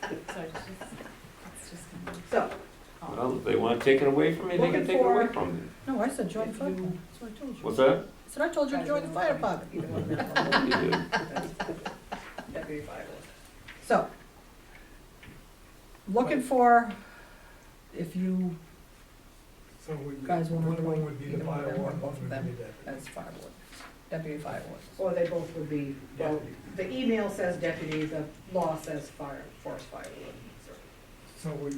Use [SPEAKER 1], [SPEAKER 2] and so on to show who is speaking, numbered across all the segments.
[SPEAKER 1] So it's just, it's just. gonna be-
[SPEAKER 2] So,
[SPEAKER 3] Well, if they want to take it away from me, they can take it away from me.
[SPEAKER 4] No, I said join the
[SPEAKER 1] If
[SPEAKER 4] fire
[SPEAKER 1] you-
[SPEAKER 4] department, that's what I told you.
[SPEAKER 3] What's that?
[SPEAKER 4] I said, I told you to join the fire department.
[SPEAKER 2] either one, that's
[SPEAKER 3] You do.
[SPEAKER 2] all. Deputy fire warden.
[SPEAKER 4] So, looking for, if you,
[SPEAKER 5] So we,
[SPEAKER 4] Guys wanna
[SPEAKER 5] one
[SPEAKER 4] avoid
[SPEAKER 5] would be
[SPEAKER 4] either
[SPEAKER 5] the
[SPEAKER 4] one of
[SPEAKER 5] fire
[SPEAKER 4] them or
[SPEAKER 5] warden,
[SPEAKER 4] both
[SPEAKER 5] one
[SPEAKER 4] of
[SPEAKER 5] would be
[SPEAKER 4] them.
[SPEAKER 5] the
[SPEAKER 4] as fire warden, deputy fire warden.
[SPEAKER 2] Or they both would be, well,
[SPEAKER 5] deputy.
[SPEAKER 2] the email says deputy, the law says fire, forest fire warden. so.
[SPEAKER 5] So we,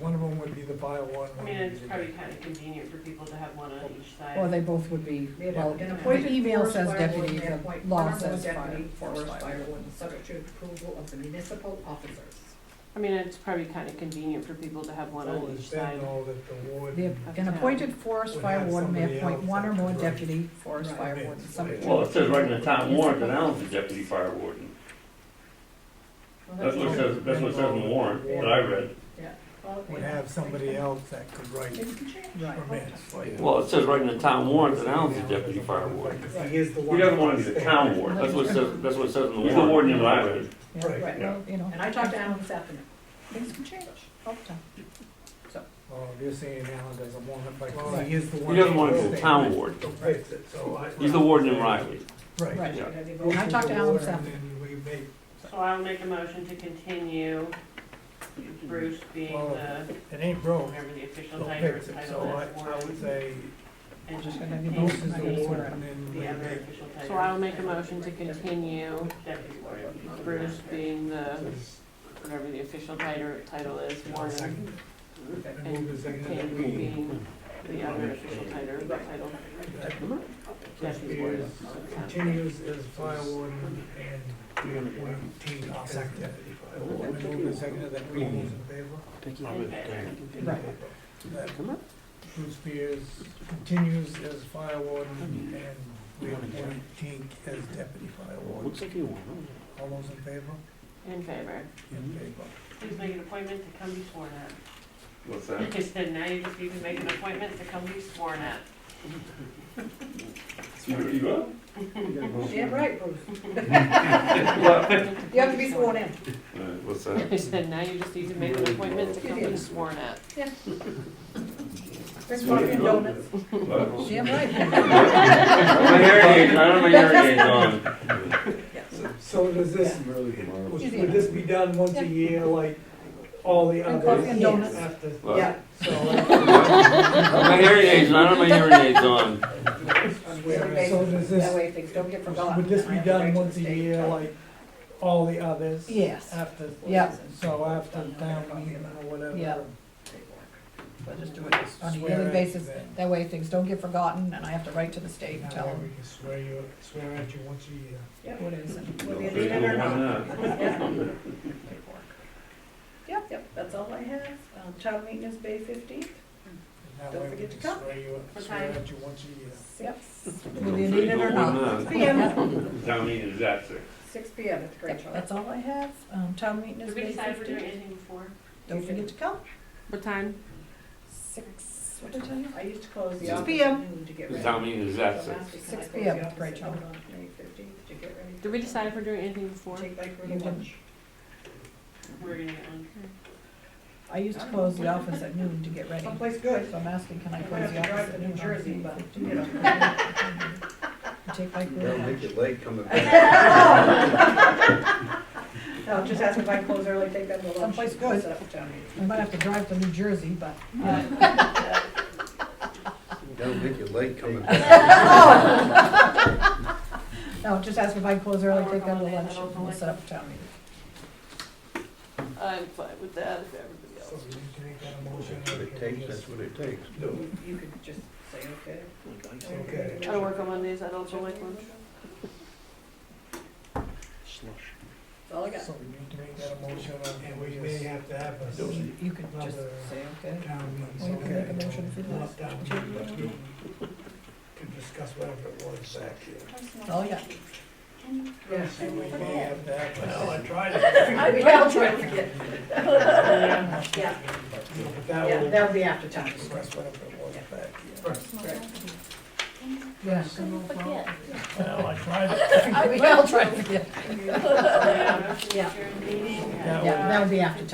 [SPEAKER 5] one of them would be the fire warden.
[SPEAKER 6] I
[SPEAKER 5] one
[SPEAKER 6] mean,
[SPEAKER 5] would be
[SPEAKER 6] it's
[SPEAKER 5] the-
[SPEAKER 6] probably kind of convenient for people to have one on each side.
[SPEAKER 4] Or they both would be,
[SPEAKER 2] They have
[SPEAKER 4] well,
[SPEAKER 2] an
[SPEAKER 4] the
[SPEAKER 2] appointed
[SPEAKER 4] email
[SPEAKER 2] forest
[SPEAKER 4] says
[SPEAKER 2] fire
[SPEAKER 4] deputy,
[SPEAKER 2] warden, they
[SPEAKER 4] the
[SPEAKER 2] appoint
[SPEAKER 4] law
[SPEAKER 2] honorable
[SPEAKER 4] says fire,
[SPEAKER 2] deputy
[SPEAKER 4] forest fire
[SPEAKER 2] warden,
[SPEAKER 4] warden.
[SPEAKER 2] subject to approval of the municipal officers.
[SPEAKER 6] I mean, it's probably kind of convenient for people to have one
[SPEAKER 5] So
[SPEAKER 6] on each
[SPEAKER 5] it's
[SPEAKER 6] side.
[SPEAKER 5] then all that the
[SPEAKER 4] The-
[SPEAKER 5] warden,
[SPEAKER 4] An appointed forest fire warden may
[SPEAKER 5] Would have
[SPEAKER 4] appoint
[SPEAKER 5] somebody
[SPEAKER 4] one or more
[SPEAKER 5] else that-
[SPEAKER 4] deputy forest
[SPEAKER 2] Right.
[SPEAKER 4] fire warden, subject
[SPEAKER 3] Well,
[SPEAKER 4] to.
[SPEAKER 3] it says right in the town warrant that Alan's the deputy fire warden. That's what it says, that's what it says in the warrant that I read.
[SPEAKER 5] would have somebody else that could write
[SPEAKER 2] Maybe we can change.
[SPEAKER 4] Right.
[SPEAKER 5] permits for you.
[SPEAKER 3] Well, it says right in the town warrant that Alan's the deputy fire warden.
[SPEAKER 5] Because He is the
[SPEAKER 3] He
[SPEAKER 5] one.
[SPEAKER 3] doesn't want to be the town warden. That's what it says, that's what it says in the warrant. He's the warden that I read.
[SPEAKER 4] Yeah,
[SPEAKER 5] Right.
[SPEAKER 2] Right.
[SPEAKER 4] well, You know,
[SPEAKER 2] And I talked to Alan this afternoon.
[SPEAKER 4] things can change all the time.
[SPEAKER 5] Oh, you're saying Alan doesn't want it, but well, he is the one.
[SPEAKER 3] He doesn't want to
[SPEAKER 5] that
[SPEAKER 3] be the
[SPEAKER 5] will
[SPEAKER 3] town warden.
[SPEAKER 5] Fix it, so I.
[SPEAKER 3] He's the warden in Riley.
[SPEAKER 5] Right.
[SPEAKER 4] Right.
[SPEAKER 3] Yeah.
[SPEAKER 2] Because they both-
[SPEAKER 4] And I talked to Alan this
[SPEAKER 5] And
[SPEAKER 4] afternoon.
[SPEAKER 5] then we make,
[SPEAKER 6] So I'll make a motion to continue Bruce being
[SPEAKER 5] Well,
[SPEAKER 6] the,
[SPEAKER 5] it ain't broke,
[SPEAKER 6] whatever the official
[SPEAKER 5] don't
[SPEAKER 6] title
[SPEAKER 5] fix
[SPEAKER 6] is,
[SPEAKER 5] it,
[SPEAKER 6] title
[SPEAKER 5] so I,
[SPEAKER 6] is
[SPEAKER 5] I would
[SPEAKER 6] warden.
[SPEAKER 5] say,
[SPEAKER 6] And just
[SPEAKER 4] gonna be
[SPEAKER 6] continue
[SPEAKER 5] most is the
[SPEAKER 4] Maybe
[SPEAKER 6] being
[SPEAKER 4] sort
[SPEAKER 5] warden,
[SPEAKER 4] of.
[SPEAKER 5] and then we
[SPEAKER 6] the other
[SPEAKER 5] make.
[SPEAKER 6] official title.
[SPEAKER 1] So I'll make a motion to continue
[SPEAKER 6] Deputy warden, Bruce being the, whatever the official title, title is, warden.
[SPEAKER 5] Second.
[SPEAKER 6] And
[SPEAKER 5] And move the second.
[SPEAKER 6] continue being the other official title, title,
[SPEAKER 5] That
[SPEAKER 6] deputy
[SPEAKER 5] is,
[SPEAKER 6] warden.
[SPEAKER 5] continues as fire warden and we team our second deputy fire warden. And move the second of that, we move in favor.
[SPEAKER 4] Right.
[SPEAKER 5] That Bruce Spears continues as fire warden and we appoint Tink as deputy fire warden. All those in favor?
[SPEAKER 6] In favor.
[SPEAKER 5] In favor.
[SPEAKER 6] Please make an appointment to come be sworn at.
[SPEAKER 3] What's that?
[SPEAKER 6] I said, now you just need to make an appointment to come be sworn at.
[SPEAKER 3] You, you up?
[SPEAKER 2] Damn right, Bruce.
[SPEAKER 3] What?
[SPEAKER 2] You have to be sworn in.
[SPEAKER 3] Uh, What's that?
[SPEAKER 6] I said, now you just need to make an appointment to come be sworn at.
[SPEAKER 2] Bring coffee and donuts.
[SPEAKER 3] What?
[SPEAKER 4] Damn right.
[SPEAKER 3] My hearing aid, I don't have my hearing aid on.
[SPEAKER 5] So does this, would this be done once a year like all the
[SPEAKER 4] And
[SPEAKER 5] others?
[SPEAKER 4] coffee and
[SPEAKER 2] donuts.
[SPEAKER 5] After-
[SPEAKER 3] What?
[SPEAKER 2] Yeah.
[SPEAKER 5] So,
[SPEAKER 3] My hearing aids, I don't have my hearing aids on.
[SPEAKER 5] so
[SPEAKER 2] That
[SPEAKER 5] does this,
[SPEAKER 2] way things don't get forgotten.
[SPEAKER 5] would this be
[SPEAKER 2] I have
[SPEAKER 5] done
[SPEAKER 2] to
[SPEAKER 5] once a
[SPEAKER 2] write to the
[SPEAKER 5] year
[SPEAKER 2] state.
[SPEAKER 5] like all the others?
[SPEAKER 4] Yes.
[SPEAKER 5] After,
[SPEAKER 4] Yeah.
[SPEAKER 5] so after town meeting or whatever?
[SPEAKER 4] Yeah.
[SPEAKER 2] But just do it as-
[SPEAKER 4] On a
[SPEAKER 5] Swear
[SPEAKER 4] yearly
[SPEAKER 5] it,
[SPEAKER 4] basis,
[SPEAKER 5] then.
[SPEAKER 4] that way things don't get forgotten and I have to write to the state and
[SPEAKER 5] Now
[SPEAKER 4] tell
[SPEAKER 5] that we
[SPEAKER 4] them
[SPEAKER 5] can swear you, swear at you once a year.
[SPEAKER 2] Yep.
[SPEAKER 4] what it is. and-
[SPEAKER 2] Whether you
[SPEAKER 3] Why
[SPEAKER 2] did it or not.
[SPEAKER 3] not?
[SPEAKER 2] Yep, yep, that's all I have. Um, Town meeting is May fifteenth.
[SPEAKER 5] And that
[SPEAKER 2] Don't
[SPEAKER 5] way we
[SPEAKER 2] forget
[SPEAKER 5] can
[SPEAKER 2] to come.
[SPEAKER 5] Swear you,
[SPEAKER 6] What
[SPEAKER 5] swear
[SPEAKER 6] time?
[SPEAKER 5] at you once a year.
[SPEAKER 2] Yep.
[SPEAKER 4] Whether you need it or
[SPEAKER 3] Why
[SPEAKER 4] not.
[SPEAKER 3] not?
[SPEAKER 2] PM,
[SPEAKER 3] Town meeting is at six.
[SPEAKER 2] six PM at the Great Charles.
[SPEAKER 4] That's all I have. Um, town meeting
[SPEAKER 6] Did
[SPEAKER 4] is
[SPEAKER 6] we
[SPEAKER 4] May
[SPEAKER 6] decide we're doing
[SPEAKER 4] fifteenth.
[SPEAKER 6] anything before?
[SPEAKER 4] Don't forget to come.
[SPEAKER 6] What time?
[SPEAKER 4] Six, what did I tell you?
[SPEAKER 2] I used to close the
[SPEAKER 3] 6
[SPEAKER 2] office at
[SPEAKER 4] PM.
[SPEAKER 2] noon to get
[SPEAKER 3] The
[SPEAKER 2] ready.
[SPEAKER 3] town meeting is at
[SPEAKER 2] So
[SPEAKER 3] six.
[SPEAKER 2] last week I
[SPEAKER 4] 6
[SPEAKER 2] closed
[SPEAKER 4] PM,
[SPEAKER 2] the office
[SPEAKER 4] Great
[SPEAKER 2] at
[SPEAKER 4] Charles.
[SPEAKER 2] noon on May fifteenth to get ready.
[SPEAKER 6] Did we decide if we're doing anything before?
[SPEAKER 2] Take like
[SPEAKER 4] You
[SPEAKER 2] really
[SPEAKER 4] didn't.
[SPEAKER 2] lunch.
[SPEAKER 6] We're gonna get on.
[SPEAKER 4] I used to close the office at noon to get ready.
[SPEAKER 2] Someplace good.
[SPEAKER 4] So I'm asking, can I
[SPEAKER 2] I'm gonna
[SPEAKER 4] close
[SPEAKER 2] have
[SPEAKER 4] the
[SPEAKER 2] to drive
[SPEAKER 4] office at
[SPEAKER 2] to
[SPEAKER 4] noon?
[SPEAKER 2] New
[SPEAKER 4] on
[SPEAKER 2] Jersey,
[SPEAKER 4] May
[SPEAKER 2] but,
[SPEAKER 4] 15th?
[SPEAKER 2] you know.
[SPEAKER 4] Take my
[SPEAKER 7] That'll make you
[SPEAKER 4] group.
[SPEAKER 7] late coming back.
[SPEAKER 2] No, just ask if I close early, take them to lunch.
[SPEAKER 4] Someplace good. uh,
[SPEAKER 2] Set up a town meeting.
[SPEAKER 4] I might have to drive to New Jersey, but
[SPEAKER 7] That'll make you late coming back.
[SPEAKER 4] no, just ask if I close early, take them to
[SPEAKER 6] I'll work on
[SPEAKER 4] lunch,
[SPEAKER 6] that.
[SPEAKER 4] and we'll set up a town meeting.
[SPEAKER 6] I'm fine with that if everybody
[SPEAKER 5] So
[SPEAKER 6] else.
[SPEAKER 5] you can make that a
[SPEAKER 7] That's
[SPEAKER 5] motion.
[SPEAKER 7] what it takes, that's what it takes.
[SPEAKER 2] You you could just say, okay.
[SPEAKER 5] Okay.
[SPEAKER 6] I don't work on Mondays, I don't feel like lunch.
[SPEAKER 2] That's all I got.
[SPEAKER 5] So we need to make that a motion and we may have to have a.
[SPEAKER 4] You- You could just
[SPEAKER 5] Another-
[SPEAKER 4] say, okay.
[SPEAKER 5] town
[SPEAKER 4] Or you
[SPEAKER 5] meeting,
[SPEAKER 4] can make a
[SPEAKER 5] okay?
[SPEAKER 4] motion if you'd like.
[SPEAKER 5] Not town meeting, but we Could discuss whatever it was back here.
[SPEAKER 4] That's all I got.
[SPEAKER 2] Yes.
[SPEAKER 5] So we may have to have. Well, I tried
[SPEAKER 2] I mean, I'll try to forget. Yeah,
[SPEAKER 5] But
[SPEAKER 2] yeah,
[SPEAKER 5] that will
[SPEAKER 2] that'll be after time.
[SPEAKER 5] discuss whatever it was back here.
[SPEAKER 4] Yes.
[SPEAKER 5] Well, I tried it.
[SPEAKER 4] I will try to forget.
[SPEAKER 6] Yeah.
[SPEAKER 2] Yeah.
[SPEAKER 6] Meeting.
[SPEAKER 5] That
[SPEAKER 4] Yeah, that would be after